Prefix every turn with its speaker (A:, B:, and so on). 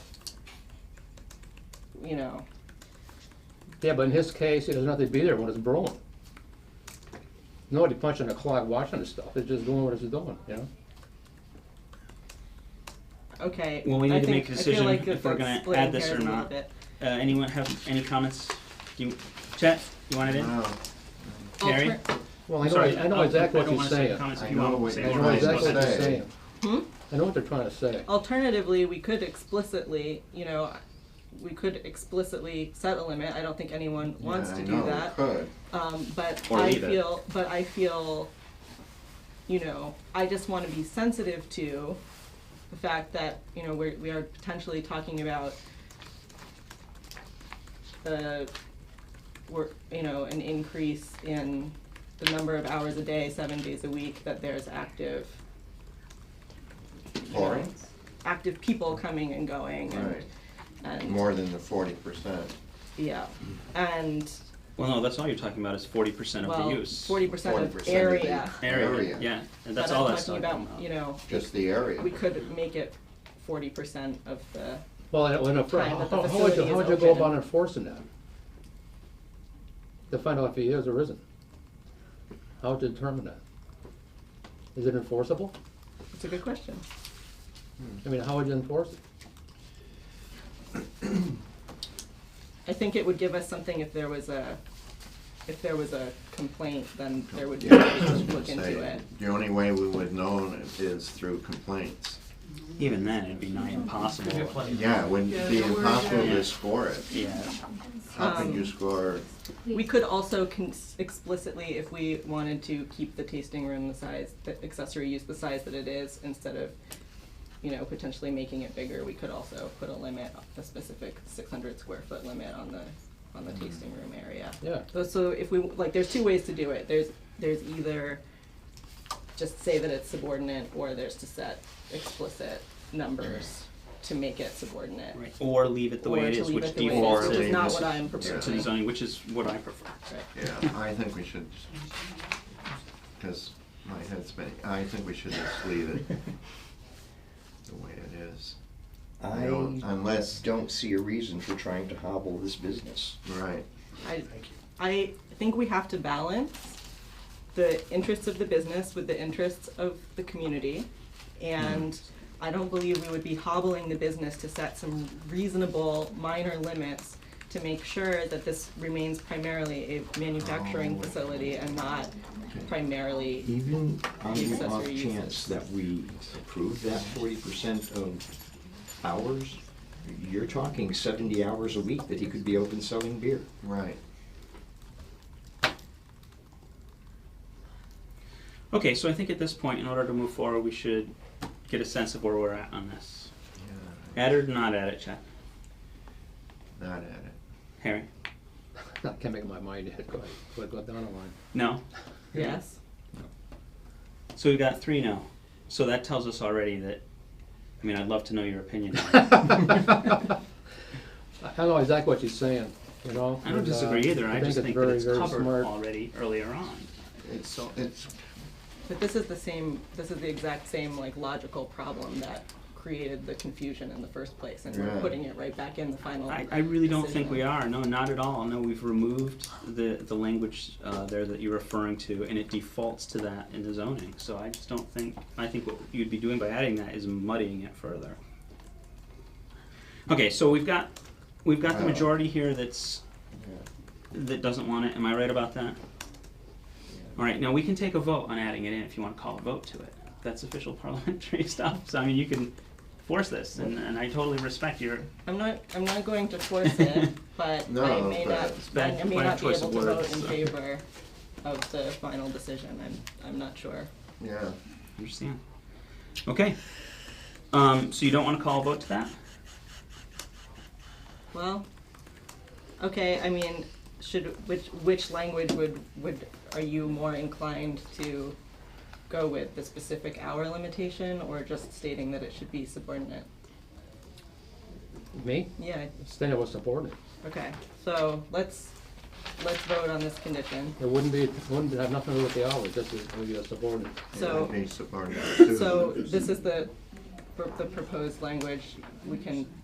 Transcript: A: you know.
B: Yeah, but in his case, it doesn't have to be there when it's brewing. Nobody punching a clock watching this stuff, it's just doing what it's doing, you know?
A: Okay.
C: Well, we need
A: I
C: to
A: think-
C: make a decision
A: I feel like
C: if we're
A: that's
C: gonna
A: splitting
C: add this
A: hairs
C: or
A: a little
C: not.
A: bit.
C: Uh, anyone have any comments? Do you, Chet, you wanted in?
D: No,
C: Gary?
A: Alter-
B: Well, I know,
C: Sorry,
B: I know exactly
C: I
B: what
C: don't
B: you're
C: wanna say
B: saying.
C: comments if
D: I
C: you
D: know
C: want to
D: what
C: say
D: you're
B: I
C: more
B: know
D: Right,
C: about
B: exactly
C: it.
B: what they're
D: say.
B: saying.
A: Hmm? Oh.
B: I know what they're trying to say.
A: Alternatively, we could explicitly, you know, we could explicitly set a limit. I don't think anyone wants
D: yeah,
A: to
D: I
A: do
D: know, we
A: that.
D: Could.
A: Um, but
E: Or
A: I
E: leave it.
A: feel, but I feel, you know, I just want to be sensitive to the fact that, you know, we're, we are potentially talking about uh, we're, you know, an increase in the number of hours a day, seven days a week that there's active, you know,
D: Pouring?
A: active people coming and going and,
D: Right,
A: and
D: more than the forty percent.
A: yeah, and
C: Well, no, that's all you're talking about is forty percent of
A: well,
C: the use.
A: forty percent
D: Forty
A: of
D: percent
A: area.
C: Area, yeah, and that's
A: But
C: all
A: I'm
C: that's
A: talking about, you know,
D: Just the area.
A: we could make it forty percent of the,
B: Well, and- and if-
A: Right,
B: how,
A: but
B: how
A: the
B: how would you,
A: facility
B: how
A: is
B: would you go
A: open.
B: about enforcing that? To find out if he is or isn't? How to determine that? Is it enforceable?
A: it's a good question.
B: I mean, how would you enforce it?
A: I think it would give us something if there was a, if there was a complaint, then there would be,
D: Yeah, I was gonna
A: look into
D: say,
A: it.
D: The only way we would know it is through complaints.
C: Even then, it'd be nigh impossible.
D: Yeah, it wouldn't be impossible to score it.
C: Yeah,
D: How can
A: Um,
D: you score,
A: We could also cons- explicitly, if we wanted to keep the tasting room the size, the accessory use the size that it is, instead of, you know, potentially making it bigger, we could also put a limit, a specific six hundred square foot limit on the, on the tasting room area.
B: Yeah.
A: So- So if we, like, there's two ways to do it, there's, there's either just say that it's subordinate, or there's to set explicit numbers to make it subordinate.
C: right, or leave it the way
A: Or
C: it
A: to
C: is,
A: leave
C: which
A: it the way it is,
C: defaults
A: Which
D: Or
C: to
A: is
D: leave
A: not
D: this-
A: what I'm
D: yeah.
C: to
A: proposing.
C: the zoning, which is what I prefer.
A: Right.
D: yeah, I think we should, because my head's spinning, I think we should just leave it the way it is.
E: I
D: don't- unless-
E: don't see a reason for trying to hobble this business.
D: Right,
A: I, I think we have to balance the interests of the business with the interests of the community. And I don't believe we would be hobbling the business to set some reasonable minor limits to make sure that this remains primarily a manufacturing
D: Oh. E?
A: facility and not primarily,
E: Even on the off
A: Accessory uses.
E: chance that we approve that forty percent of hours, you're talking seventy hours a week that he could be open selling beer.
D: right.
C: Okay, so I think at this point, in order to move forward, we should get a sense of where we're at on this.
D: Yeah,
C: Add it or not add it, Chet?
D: Not at it.
C: Harry?
B: I can't make up my mind yet, go ahead, go ahead, go down the line.
C: No?
A: yes?
C: So we've got three no. So that tells us already that, I mean, I'd love to know your opinion. on it.
B: I I know exactly what you're saying, you know?
C: I don't
B: and, uh,
C: disagree either, I just
B: it's
C: think that
B: very,
C: it's
B: very
C: covered
B: smart.
C: already earlier on.
D: It's,
C: So-
D: it's,
A: But this is the same, this is the exact same like logical problem that created the confusion in the first place. And we're
D: Yeah.
A: putting it right back in the final
C: I, I really don't think
A: decision.
C: we are, no, not at all. No, we've removed the, the language uh, there that you're referring to, and it defaults to that in the zoning. So I just don't think, I think what you'd be doing by adding that is muddying it further. Okay, so we've got, we've got the
D: Wow.
C: majority here that's,
E: Yeah.
C: that doesn't want it, am I right about that? All right, now we can take a vote on adding it in if you want to call a vote to it. That's official parliamentary stuff, so I mean, you can force this, and, and I totally respect your,
A: I'm not, I'm not going to force it, but I
D: No,
A: may
D: but-
A: not,
D: It's
C: bad-
A: I may
C: bad
A: not be
C: choice
A: able
C: of
A: to vote
C: words,
A: in
C: so.
A: favor of the final decision, I'm, I'm not sure.
D: yeah.
C: Understand. Okay. Um, so you don't want to call a vote to that?
A: Well, okay, I mean, should, which, which language would, would, are you more inclined to go with, the specific hour limitation, or just stating that it should be subordinate?
B: Me,
A: Yeah,
B: Stand up was subordinate.
A: okay, so let's, let's vote on this condition.
B: It wouldn't be, it wouldn't have nothing to do with the hours, just it would be a subordinate.
A: So-
D: It would be subordinate to-
A: So this is the, the proposed language, we can